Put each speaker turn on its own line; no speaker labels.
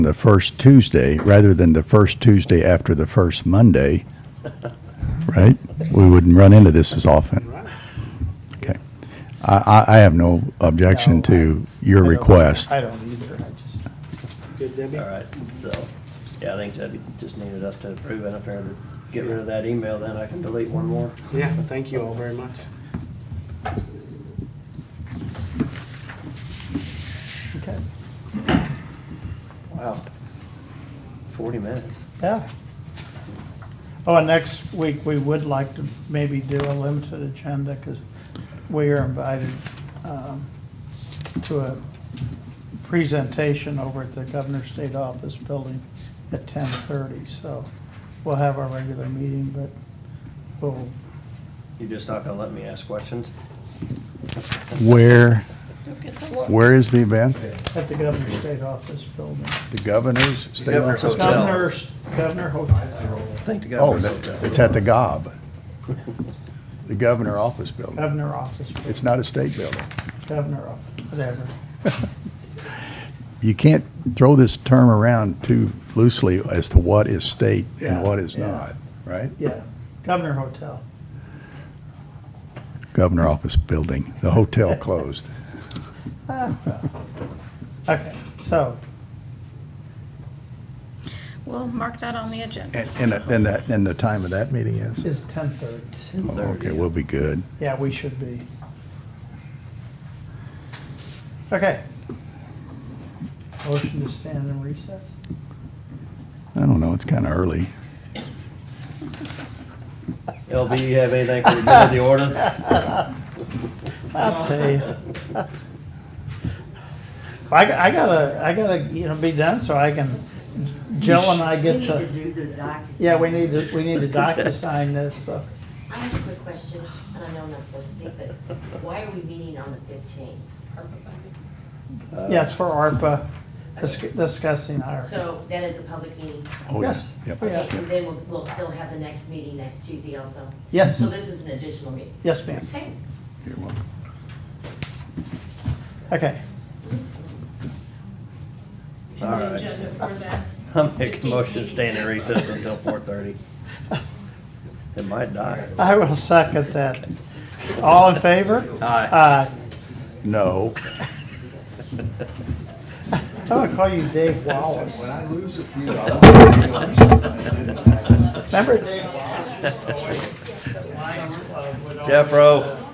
the first Tuesday, rather than the first Tuesday after the first Monday, right? We wouldn't run into this as often. Okay. I, I, I have no objection to your
I don't-
request.
I don't either, I just. Good, Debbie?
All right, so, yeah, I think Debbie just needed us to approve it. If I ever get rid of that email, then I can delete one more.
Yeah, thank you all very much.
Okay. Wow. Forty minutes.
Yeah. Oh, and next week, we would like to maybe do a limited agenda, because we are invited um, to a presentation over at the Governor's State Office Building at 10:30, so we'll have our regular meeting, but we'll,
You're just not gonna let me ask questions?
Where, where is the event?
at the Governor's State Office Building.
The governor's state
governor's
office?
hotel.
Governor's, Governor Hotel,
Thank the
Oh,
governor's
that-
hotel.
it's at the gob, the governor office building.
Governor Office,
It's not a state building.
Governor Office, whatever.
You can't throw this term around too loosely as to what is state
Yeah,
and what is
yeah.
not, right?
Yeah, Governor Hotel.
Governor office building, the hotel closed.
Okay, so,
We'll mark that on the agenda.
And, and, that- and that, and the time of that meeting is?
it's 10:30.
Oh, Okay, we'll be good.
Yeah, we should be. Okay. Motion to stand in recess?
I don't know, it's kind of early.
LB, you have anything for the good of the order?
I'll tell you. I, got- I gotta, I gotta, you know, be done so I can, Jill and I get
We
to,
need to do the docu-sign.
yeah, we need to, we need to DocuSign this, so.
I have a quick question, and I know I'm not supposed to speak, but why are we meeting on the fifteenth?
Yeah, it's for ARPA, dis- discussing our,
So that is a public meeting.
Oh, yeah.
Yes.
Yep.
Oh, yeah.
Okay, and then we'll, we'll still have the next meeting next Tuesday also.
yes,
So this is an additional meeting.
yes, ma'am.
Thanks.
You're welcome.
Okay.
And the agenda for that.
I'm making motion, to stay in recess until four thirty. It might die.
I will second that. All in favor?
Aye.
Aye.
No.
I'm gonna call you Dave Wallace.
I lose a few. I want to be on something.
Remember Dave Wallace?
Jeffro.